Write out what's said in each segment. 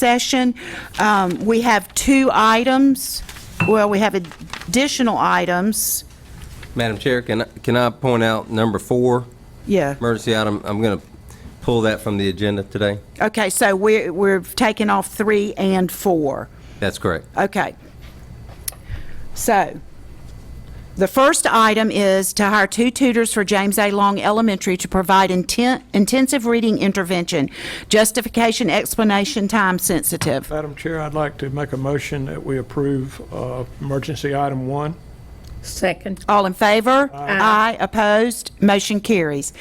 session. Um, We have two items, well, we have additional items. Madam Chair, can, I- can I point out number four, Yeah. emergency item? I'm going to pull that from the agenda today. Okay, so we're, we're taking off three and four. That's correct. Okay. So, the first item is to hire two tutors for James A. Long Elementary to provide inten- intensive reading intervention, justification, explanation, time sensitive. Madam Chair, I'd like to make a motion that we approve uh, emergency item one. Second. All in favor? Aye. Opposed? Motion carries.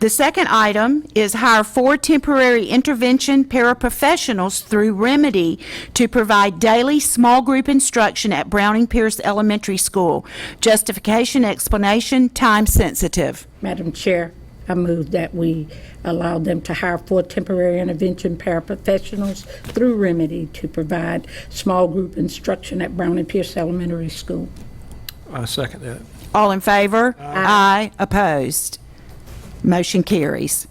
The second item is hire four temporary intervention paraprofessionals through Remedy to provide daily small group instruction at Browning Pierce Elementary School. Justification, explanation, time sensitive. Madam Chair, I move that we allow them to hire four temporary intervention paraprofessionals through Remedy to provide small group instruction at Brown and Pierce Elementary School. I second that. All in favor? Aye. Opposed? Motion carries.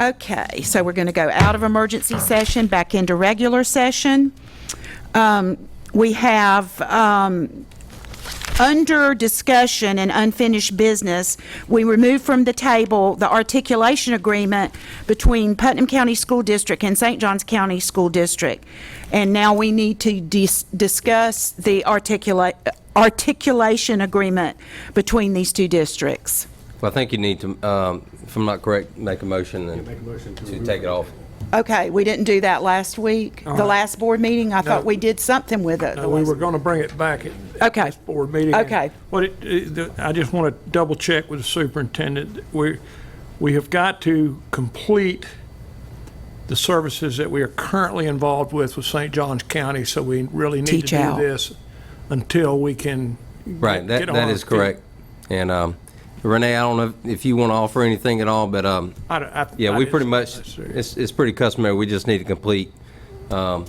Okay, so we're going to go out of emergency session, back into regular session. Um, We have, um, under discussion and unfinished business, we removed from the table the articulation agreement between Putnam County School District and St. Johns County School District. And now we need to dis- discuss the articula- articulation agreement between these two districts. Well, I think you need to, um, if I'm not correct, make a motion and to take it off. Okay, we didn't do that last week, the last board meeting. I thought we did something with it. Now, we were going to bring it back at Okay. this board meeting. and Okay. What it- it, the- I just want to double check with the superintendent. We, we have got to complete the services that we are currently involved with with St. John's County, so we really need to Teach do out. this until we can. Right, that, get that on is our feet. correct. And um, Renee, I don't know if you want to offer anything at all, but um, I don't- I- yeah, I we just- pretty much, it's, it's pretty customary. We just need to complete um,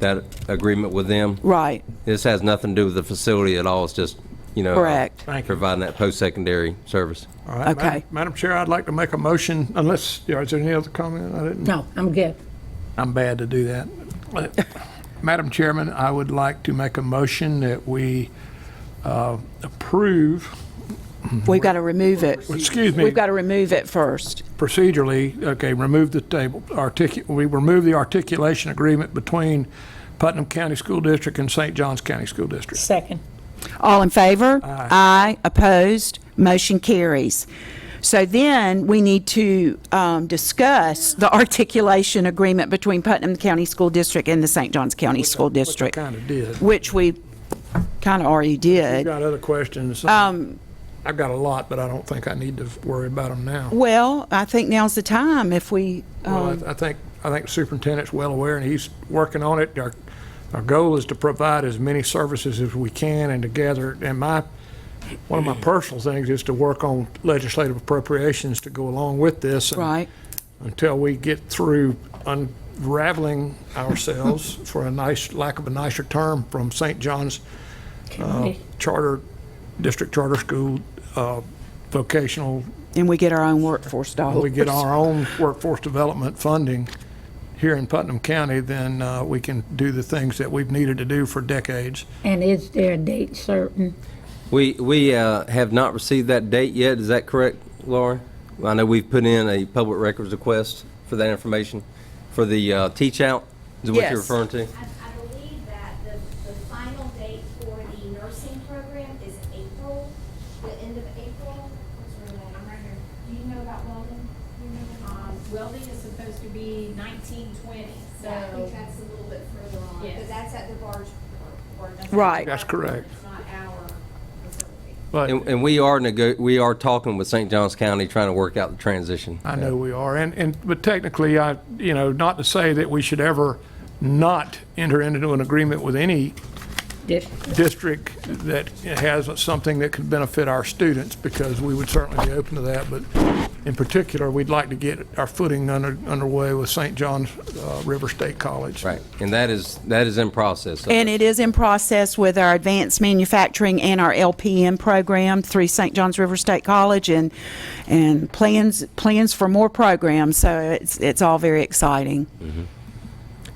that agreement with them. Right. This has nothing to do with the facility at all. It's just, you know. uh, Correct. Thank you. Providing that post-secondary service. All right, Madam- Okay. Madam Chair, I'd like to make a motion, unless, yeah, is there any other comment? I didn't, No, I'm good. I'm bad to do that. But, Madam Chairman, I would like to make a motion that we uh, approve We've got to remove it. Excuse me. We've got to remove it first. procedurally, okay, remove the table, articu, we remove the articulation agreement between Putnam County School District and St. Johns County School District. Second. All in favor? Aye. opposed, motion carries. So then, we need to um, discuss the articulation agreement between Putnam County School District and the St. Johns County School District, Kind of did. which we kind of already You did. got other questions? Um. I've got a lot, but I don't think I need to worry about them now. Well, I think now's the time if we, Well, I um, th- I think, I think superintendent's well aware, and he's working on it. Our, our goal is to provide as many services as we can and to gather, and my, one of my personal things is to work on legislative appropriations to go along with this. and right? Until we get through unraveling ourselves, for a nice, lack of a nicer term, from St. John's uh, Charter, District Charter School, uh, vocational And we get our own workforce dollars. we get our own workforce development funding here in Putnam County, then uh, we can do the things that we've needed to do for decades. And is there a date certain? We, we uh, have not received that date yet, is that correct, Laura? I know we've put in a public records request for that information, for the uh, teach-out, is what Yes. you're referring to? I, I believe that the, the final date for the nursing program is April, the end of April. What's her name? Do you know about welding? You remember? Um, welding is supposed to be nineteen twenty, so. I think that's a little bit further on, Yes. but that's at the barge or, or. Right. That's correct. It's not our facility. But And, and we are nego, we are talking with St. Johns County, trying to work out the transition. I know we are, and, and, but technically, I, you know, not to say that we should ever not enter into an agreement with any Yes. district that has something that could benefit our students, because we would certainly be open to that, but in particular, we'd like to get our footing under, underway with St. John's uh, River State College. Right, and that is, that is in process. And it is in process with our advanced manufacturing and our LPM program through St. John's River State College and, and plans, plans for more programs, so it's, it's all very exciting.